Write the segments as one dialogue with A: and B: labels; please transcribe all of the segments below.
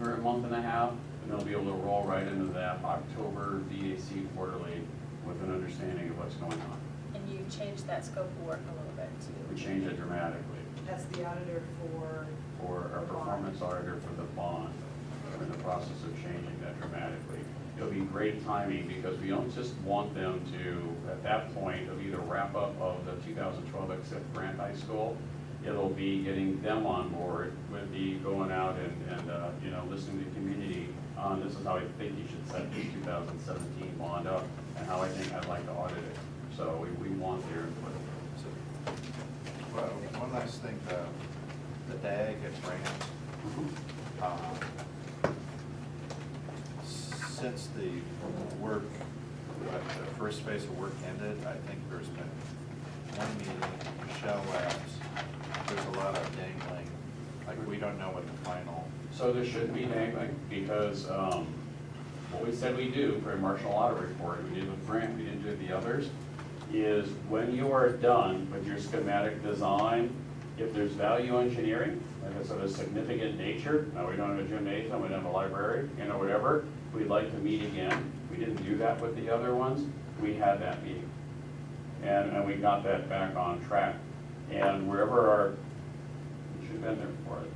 A: month and a half, and they'll be able to roll right into that October VAC quarterly with an understanding of what's going on.
B: And you changed that scope of work a little bit
A: We
B: too.
A: change it dramatically
C: As the auditor for,
A: for our performance auditor for the bond. We're in the process of changing that dramatically. It'll be great timing because we don't just want them to, at that point, of either wrap up of the 2012 except Grant High School. It'll be getting them on board with the going out and, and, uh, you know, listening to the community on this is how I think you should set this 2017 bond up and how I think I'd like to audit it. So we, we want their input.
D: Well, one last thing, uh, the DAG at Brant, um, since the work, uh, the first phase of work ended, I think there's been one meeting, Michelle Labs, there's a lot of dangling, like, we don't know what the final,
A: So there should be dangling, because um, what we said we do for a martial audit report, we did with Grant, we didn't do the others, is when you are done with your schematic design, if there's value engineering, if it's of a significant nature, now we don't have a gymnasium, we don't have a library, you know, whatever, we'd like to meet again. We didn't do that with the other ones, we had that meeting. And, and we got that back on track. And wherever our, we should have been there for it.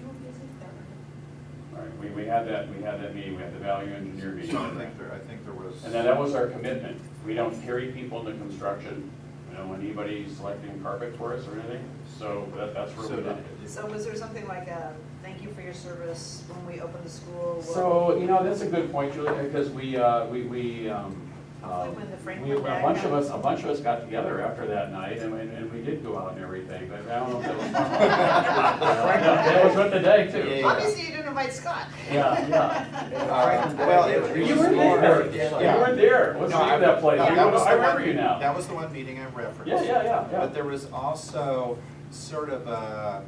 C: you were busy there.
A: All right, we, we had that, we had that meeting, we had the value engineer meeting.
D: so I think there, I think there was.
A: And then that was our commitment. We don't carry people into construction, we don't want anybody selecting carpet for us or anything, so that, that's
D: So
A: where we
D: did-
A: left it.
C: So was there something like a, thank you for your service when we opened the school?
A: So, you know, that's a good point, Julie, because we, uh, we, we, um, uh,
C: Hopefully when the Frank
A: we, a
C: went back
A: bunch of
C: up.
A: us, a bunch of us got together after that night, and, and and we did go out and everything, but I don't know if that was. That was with the day too.
C: Obviously, you didn't invite Scott.
A: Yeah, yeah.
D: Uh, Well, it
A: You were
D: it was more.
A: there, you
D: Yeah.
A: were there, what's the
D: No,
A: name
D: I-
A: of that place?
D: no,
A: You
D: that
A: were-
D: was
A: I
D: the
A: remember
D: one-
A: you now.
D: That was the one meeting I referenced.
A: Yeah, yeah, yeah, yeah.
D: But there was also sort of a,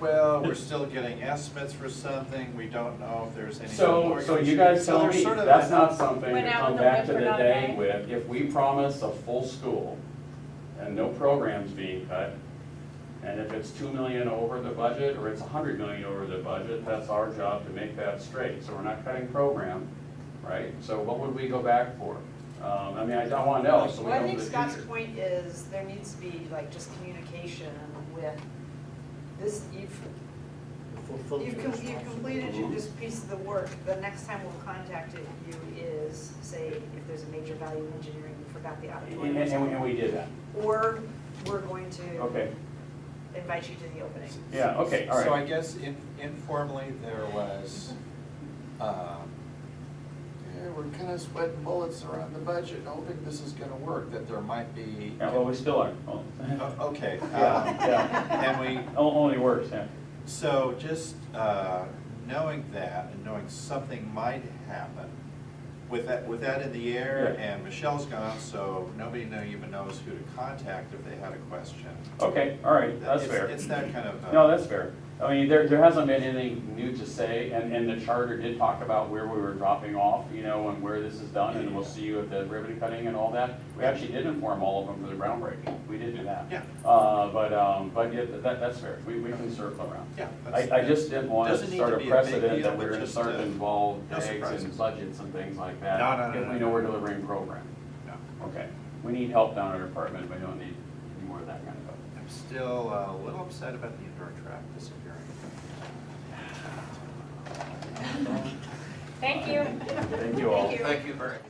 D: well, we're still getting estimates for something, we don't know if there's any.
A: So,
D: more
A: so you
D: information.
A: guys
D: So
A: tell
D: there's
A: me,
D: sort of
A: that's
D: a-
A: not something
B: Went
A: to
B: out
A: come
B: with the
A: back to the
B: wind for another
A: day
B: day.
A: with, if we promise a full school and no programs being cut, and if it's two million over the budget, or it's hundred million over the budget, that's our job to make that straight, so we're not cutting program, right? So what would we go back for? Um, I mean, I don't wanna know, so we
C: Well, I
A: know in
C: think
A: the
C: Scott's
A: future.
C: point is there needs to be like just communication with this, you've, you've com- you've completed your- this piece of the work. The next time we'll contact it- you is, say, if there's a major value in engineering, we forgot the
A: And,
C: auditorium. or
A: and- and we- and
C: something.
A: we did that,
C: Or we're going to
A: okay,
C: invite you to the opening.
A: yeah, okay, all
D: So I
A: right.
D: guess in- informally, there was, um, yeah, we're kind of sweating bullets around the budget, hoping this is gonna work, that there might be.
A: Yeah, well, we still are, Oh.
D: O- Okay. um,
A: yeah,
D: And we,
A: yeah, O- only worse, yeah.
D: So just uh, knowing that and knowing something might happen, with that, with that in the air
A: Yeah.
D: and Michelle's gone, so nobody know- even knows who to contact if they had a question.
A: Okay, all right, that's
D: It's-
A: fair.
D: It's that kind of. uh,
A: No, that's fair. I mean, there, there hasn't been anything new to say, and, and the charter did talk about where we were dropping off, you know, and where this is done, and we'll see you at the ribbon cutting and all that. We actually did inform all of them for the groundbreaking, we did do that.
D: Yeah.
A: Uh, but, um, but yeah, that, that's fair, we, we can circle around.
D: Yeah. that's-
A: I, I just didn't want
D: Doesn't
A: to
D: need
A: start
D: to
A: a
D: be a big
A: precedent
D: deal,
A: that we're
D: but
A: gonna
D: just,
A: start
D: uh,
A: to involve
D: no
A: eggs
D: surprises.
A: and budgets and things like that.
D: No, no, no,
A: If
D: no,
A: we
D: no.
A: know we're delivering program.
D: no.
A: Okay, we need help down at our department, but we don't need any more of that kind of help.
D: I'm still uh, a little upset about the indoor track disappearing.
B: Thank you.
A: Thank you all.
B: Thank you.
E: Thank you very much.